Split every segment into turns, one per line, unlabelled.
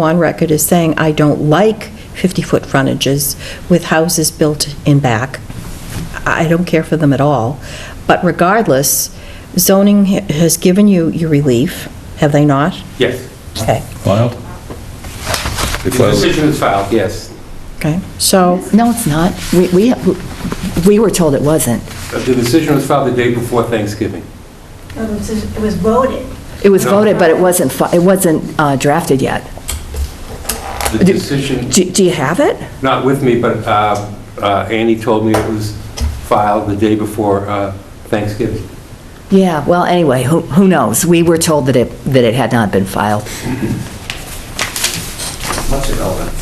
on record as saying, I don't like 50-foot frontages with houses built in back. I don't care for them at all. But regardless, zoning ha- has given you your relief, have they not?
Yes.
Okay,
Filed?
The decision is filed, yes.
okay, so,
No, it's not. We, we, we were told it wasn't.
The decision was filed the day before Thanksgiving.
It was- Um, it was voted.
It was
No.
voted, but it wasn't, fi- it wasn't uh, drafted yet.
The decision,
Do, do you have it?
not with me, but uh, uh, Annie told me it was filed the day before uh, Thanksgiving.
Yeah, well, anyway, who, who knows? We were told that it, that it had not been filed.
What's irrelevant?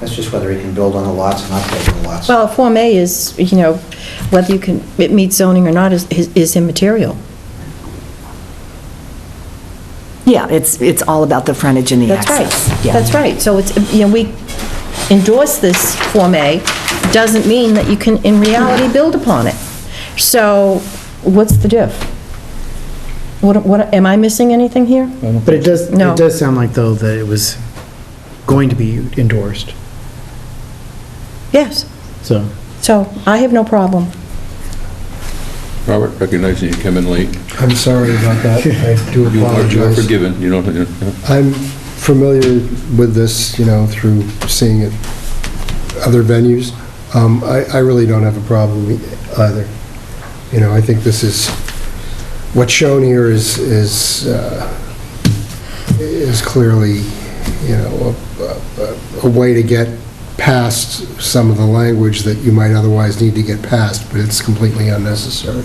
That's just whether he can build on the lots or not build on the lots.
well, Form A is, you know, whether you can, it meets zoning or not is is immaterial.
Yeah, it's, it's all about the frontage and the
That's
access.
right,
Yeah.
that's right. So it's, you know, we endorse this Form A, doesn't mean that you can, in reality, build upon it. So what's the diff? What, what, am I missing anything here?
But it does, it
No.
does sound like, though, that it was going to be endorsed,
Yes,
so.
so I have no problem.
Robert, recognizing you came in late,
I'm sorry about that. I do
you are you are
apologize.
forgiven, you don't, you know,
I'm familiar with this, you know, through seeing it other venues. Um, I I really don't have a problem e- either. You know, I think this is, what's shown here is, is uh, is clearly, you know, a- a a way to get past some of the language that you might otherwise need to get past, but it's completely unnecessary.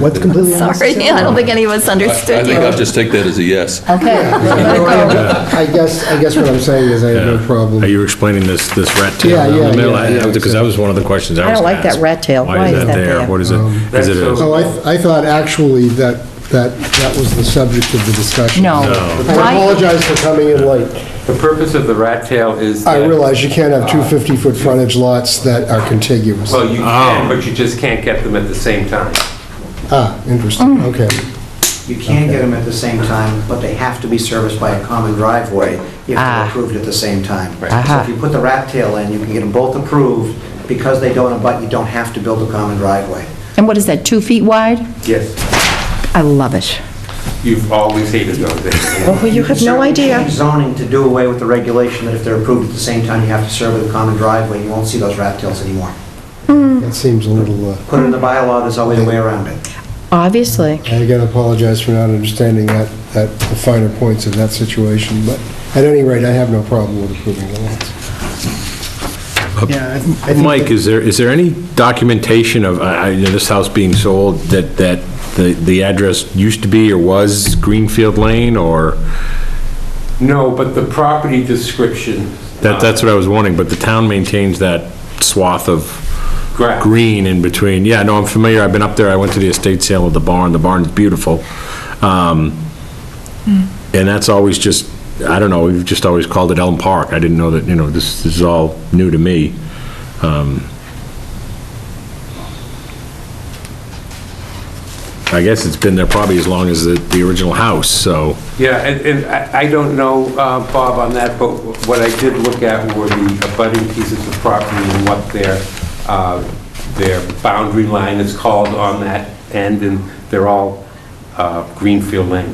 What's completely
Sorry, I don't think any of us
I I
understood
think
you.
I'll just take that as a yes.
Okay.
oh.
I guess, I guess what I'm saying is I have no problem.
Are you explaining this, this rat tail
Yeah,
down
yeah,
the middle?
yeah, yeah,
Because that was one of the questions I
I
was
don't
gonna
like that
ask.
rat tail.
Why is that there? What is it?
Um,
Is it a-
Oh, I, th- I thought actually that, that, that was the subject of the discussion.
No.
I apologize for coming in late.
The purpose of the rat tail is
I
that-
realize you can't have two 50-foot frontage lots that are contiguous.
Well, you can, but you just can't get them at the same time.
Ah, interesting,
Mm.
okay.
You can get them at the same time, but they have to be serviced by a common driveway if
Ah.
they're approved at the same time. So
Aha.
if you put the rat tail in, you can get them both approved, because they don't abut, you don't have to build a common driveway.
And what is that, two feet wide?
Yes,
I love it.
you've always hated those things.
Well, you have no
certainly
idea.
change zoning to do away with the regulation that if they're approved at the same time, you have to serve with a common driveway, you won't see those rat tails anymore.
That seems a little, uh,
Put it in the bylaw, there's always a way around it.
Obviously.
I again apologize for not understanding that, that, the finer points of that situation, but at any rate, I have no problem with approving the lots.
Yeah, I think- I think
Mike, is there, is there any documentation of, I, I- you know, this house being sold, that, that the, the address used to be or was Greenfield Lane, or,
No, but the property description.
that, that's what I was wondering, but the town maintains that swath of
Correct.
green in between. Yeah, no, I'm familiar, I've been up there, I went to the estate sale of the barn, the barn's beautiful. Um, And that's always just, I don't know, we've just always called it Elm Park. I didn't know that, you know, this this is all new to me. Um, I guess it's been there probably as long as the, the original house, so.
Yeah, and, and I I don't know, uh, Bob, on that, but what I did look at were the abutting pieces of property and what their, uh, their boundary line is called on that end, and they're all uh, Greenfield Lane.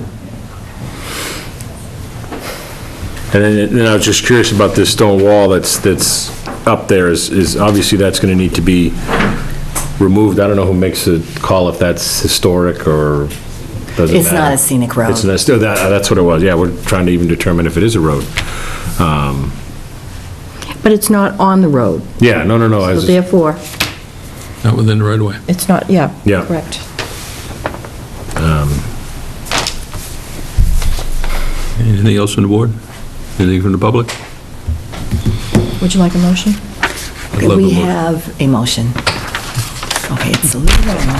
And then, and then I was just curious about this stone wall that's, that's up there is, is obviously that's gonna need to be removed. I don't know who makes the call if that's historic or doesn't matter.
It's not a scenic road.
It's, that's, that- that's what it was, yeah, we're trying to even determine if it is a road. Um,
But it's not on the road.
Yeah, no, no, no,
Oh,
I
So
was,
therefore,
Not within the right of way.
it's not, yeah,
Yeah.
correct.
Anything else from the board? Anything from the public?
Would you like a motion?
I'd
Could
love
we
a motion.
have a motion? Okay, it's a little long.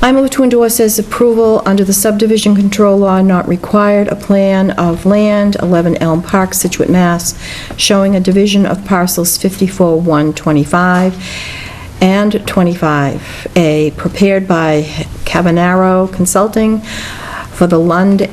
I move to endorse as approval under the subdivision control law not required, a plan of land, 11 Elm Park, Situate, Mass., showing a division of parcels 54-125 and 25A, prepared by Cavanaro Consulting for the Lund